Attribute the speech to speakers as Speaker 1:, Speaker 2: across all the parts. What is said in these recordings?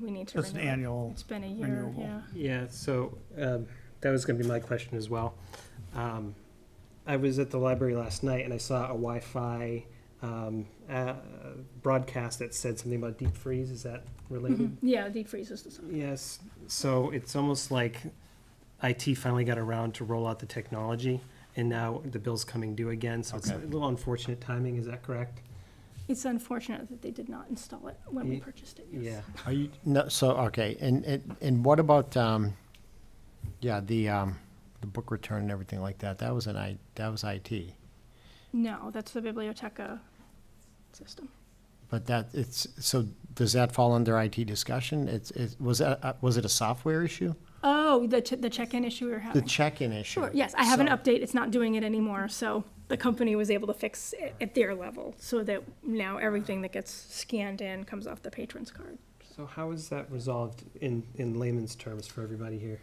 Speaker 1: We need to
Speaker 2: Just an
Speaker 1: renew it.
Speaker 2: annual,
Speaker 1: It's been a year,
Speaker 2: renewable.
Speaker 1: yeah.
Speaker 3: Yeah, so um, that was going to be my question as well. Um, I was at the library last night and I saw a Wi-Fi um, uh, broadcast that said something about deep freeze. Is that related?
Speaker 1: Mhm. Yeah, deep freeze is the same.
Speaker 3: Yes, so it's almost like IT finally got around to roll out the technology, and now the bill's coming due again, so it's a
Speaker 4: Okay.
Speaker 3: little unfortunate timing, is that correct?
Speaker 1: It's unfortunate that they did not install it when we
Speaker 3: Ye-
Speaker 1: purchased it,
Speaker 3: Yeah,
Speaker 1: yes.
Speaker 4: Are you, no, so, okay, and, and, and what about, um, yeah, the, um, the book return and everything like that, that was an I, that was IT.
Speaker 1: No, that's the Biblioteca system.
Speaker 4: But that, it's, so does that fall under IT discussion? It's, it, was that, uh, was it a software issue?
Speaker 1: Oh, the, che- the check-in issue we were
Speaker 4: The
Speaker 1: having.
Speaker 4: check-in issue?
Speaker 1: Uh, Sure, yes, I have an
Speaker 4: So-
Speaker 1: update, it's not doing it anymore, so the company was able to fix it at their level, so that now everything that gets scanned in comes off the patron's card.
Speaker 3: so how is that resolved in, in layman's terms for everybody here?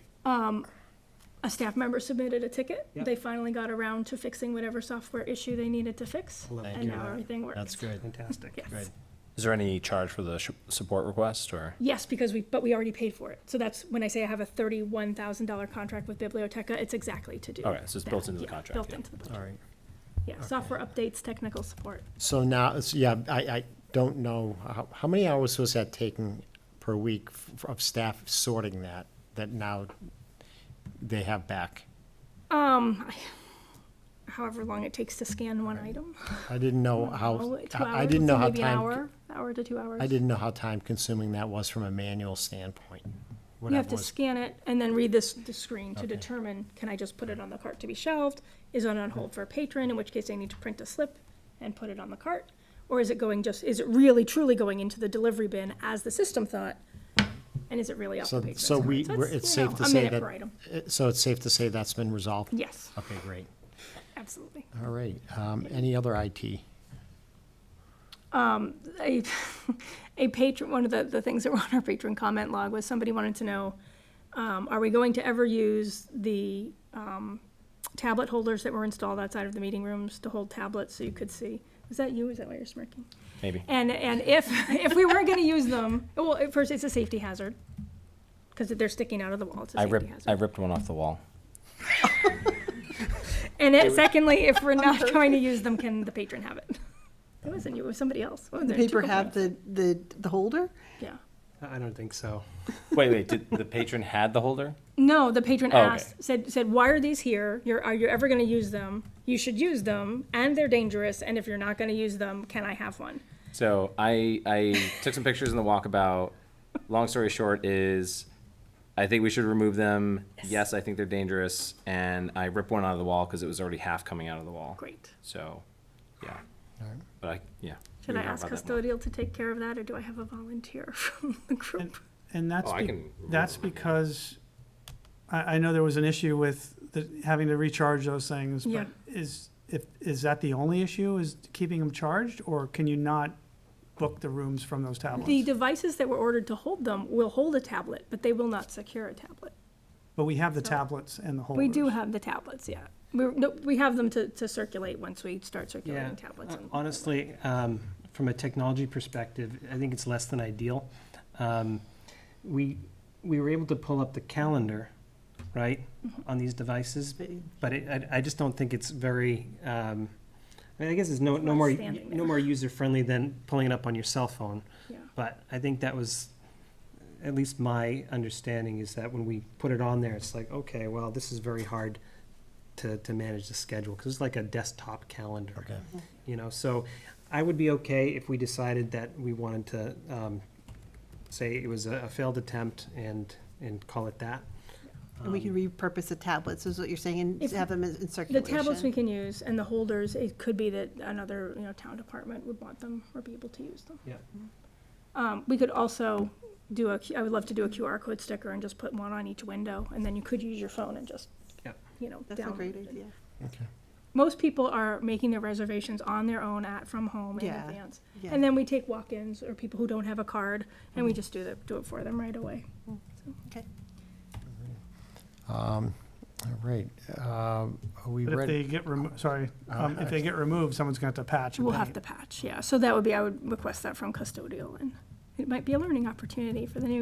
Speaker 1: A staff member submitted a ticket,
Speaker 3: Yep.
Speaker 1: they finally got around to fixing whatever software issue they needed to fix,
Speaker 3: Love to
Speaker 1: and
Speaker 3: hear
Speaker 1: now
Speaker 3: that.
Speaker 1: everything works.
Speaker 4: That's good,
Speaker 3: Fantastic.
Speaker 1: Yes.
Speaker 4: good.
Speaker 5: Is there any charge for the sh- support request or?
Speaker 1: Yes, because we, but we already paid for it. So that's, when I say I have a thirty-one thousand dollar contract with Biblioteca, it's exactly to do.
Speaker 5: Okay, so it's
Speaker 1: that.
Speaker 5: built into the
Speaker 1: Yeah,
Speaker 5: contract,
Speaker 1: Built
Speaker 5: yeah.
Speaker 1: into the budget.
Speaker 4: All right.
Speaker 1: Yeah, software updates, technical support.
Speaker 4: So now, it's- yeah, I, I don't know, how, how many hours was that taking per week f- of staff sorting that, that now they have back?
Speaker 1: Um, I- however long it takes to scan one item.
Speaker 4: I didn't know
Speaker 1: Oh,
Speaker 4: how,
Speaker 1: two
Speaker 4: I I
Speaker 1: hours,
Speaker 4: didn't
Speaker 1: so
Speaker 4: know how
Speaker 1: Maybe an
Speaker 4: time,
Speaker 1: hour, hour to two hours.
Speaker 4: I didn't know how time consuming that was from a manual standpoint. what
Speaker 1: You
Speaker 4: that
Speaker 1: have to
Speaker 4: was.
Speaker 1: scan it and then read this, the screen to
Speaker 4: Okay.
Speaker 1: determine, can I just put it on the cart to be shelved? Is it on hold for a patron, in which case I need to print a slip and put it on the cart? Or is it going just, is it really truly going into the delivery bin as the system thought? And is it really off the
Speaker 4: So,
Speaker 1: patron's
Speaker 4: so
Speaker 1: cart?
Speaker 4: we, we're-
Speaker 1: you
Speaker 4: it's
Speaker 1: know,
Speaker 4: safe to
Speaker 1: a
Speaker 4: say
Speaker 1: minute
Speaker 4: that,
Speaker 1: per item.
Speaker 4: uh, so it's safe to say that's been resolved?
Speaker 1: Yes,
Speaker 4: Okay, great.
Speaker 1: absolutely.
Speaker 4: All right. Um, any other IT?
Speaker 1: a, a patron, one of the, the things that were on our patron comment log was somebody wanted to know, um, are we going to ever use the, um, tablet holders that were installed outside of the meeting rooms to hold tablets so you could see? Is that you? Is that why you're smirking?
Speaker 5: Maybe.
Speaker 1: And, and if, if we were gonna use them, well, at first, it's a safety hazard, because they're sticking out of the wall, it's a
Speaker 5: I
Speaker 1: safety
Speaker 5: ripped, I
Speaker 1: hazard.
Speaker 5: ripped one off the wall.
Speaker 1: And it- secondly, if we're not going to use them, can the patron have it? It wasn't you, it was somebody else. What was
Speaker 6: The
Speaker 1: Oh, there, two
Speaker 6: paper
Speaker 1: companies?
Speaker 6: had the, the, the holder?
Speaker 1: Yeah.
Speaker 3: I I don't think so.
Speaker 5: Wait, wait, did the patron had the holder?
Speaker 1: No, the patron
Speaker 5: Oh, okay.
Speaker 1: asked, said, said, why are these here? You're, are you ever going to use them? You should use them, and they're dangerous. And if you're not going to use them, can I have one?
Speaker 5: So I, I took some pictures in the walkabout. Long story short is, I think we should remove them. Yes, I think they're dangerous. And I ripped one out of the wall because it was already half coming out of the wall.
Speaker 1: Great.
Speaker 5: So, yeah. But I, yeah.
Speaker 1: Should
Speaker 5: we
Speaker 1: I
Speaker 5: can talk
Speaker 1: ask
Speaker 5: about that more.
Speaker 1: custodial to take care of that, or do I have a volunteer from the group?
Speaker 2: And that's,
Speaker 5: Oh, I
Speaker 2: be-
Speaker 5: can remove
Speaker 2: that's
Speaker 5: them, yeah.
Speaker 2: because, I, I know there was an issue with the, having to recharge those things,
Speaker 1: Yeah.
Speaker 2: but is, if, is that the only issue, is keeping them charged? Or can you not book the rooms from those
Speaker 1: The
Speaker 2: tablets?
Speaker 1: devices that were ordered to hold them will hold a tablet, but they will not secure a tablet.
Speaker 2: But we have the tablets and the holders.
Speaker 1: We do have the tablets, yeah. We, no, we have them to, to circulate once we start
Speaker 3: Yeah,
Speaker 1: circulating tablets.
Speaker 3: uh,
Speaker 1: and-
Speaker 3: honestly, um, from a technology perspective, I think it's less than ideal. Um, we, we were able to pull up the calendar, right,
Speaker 1: Mm-hmm.
Speaker 3: on these devices, but it, I, I just don't think it's very, um, I mean, I guess it's no,
Speaker 1: It's
Speaker 3: no
Speaker 1: not
Speaker 3: more,
Speaker 1: standing
Speaker 3: no
Speaker 1: there.
Speaker 3: more user-friendly than pulling it up on your cell phone.
Speaker 1: Yeah.
Speaker 3: But I think that was, at least my understanding is that when we put it on there, it's like, okay, well, this is very hard to, to manage the schedule, because it's like a desktop calendar.
Speaker 4: Okay.
Speaker 3: You know, so I would be okay if we decided that we wanted to, um, say it was a a failed attempt and, and call it that.
Speaker 6: And we can repurpose the tablets, is what you're saying, and
Speaker 1: If-
Speaker 6: have them in in
Speaker 1: The
Speaker 6: circulation?
Speaker 1: tablets we can use, and the holders, it could be that another, you know, town department would want them or be able to use them.
Speaker 3: Yeah.
Speaker 1: Um, we could also do a, Q- I would love to do a QR code sticker and just put one on each window, and then you could use your phone and just,
Speaker 3: Yep.
Speaker 1: you know,
Speaker 6: That's a great
Speaker 1: download it.
Speaker 6: idea.
Speaker 4: Okay.
Speaker 1: Most people are making their reservations on their own at, from home in
Speaker 6: Yeah,
Speaker 1: advance.
Speaker 6: yeah. Mm-hmm.
Speaker 1: And then we take walk-ins or people who don't have a card, and we just do the, do it for them right away.
Speaker 6: Okay.
Speaker 4: All right. Um, are we
Speaker 2: But if
Speaker 4: ready?
Speaker 2: they get removed, sorry,
Speaker 5: Oh,
Speaker 2: um, if they get removed, someone's gonna have to patch. and
Speaker 1: We'll
Speaker 2: pay.
Speaker 1: have to patch, yeah. So that would be, I would request that from custodial, and it might be a learning opportunity for the new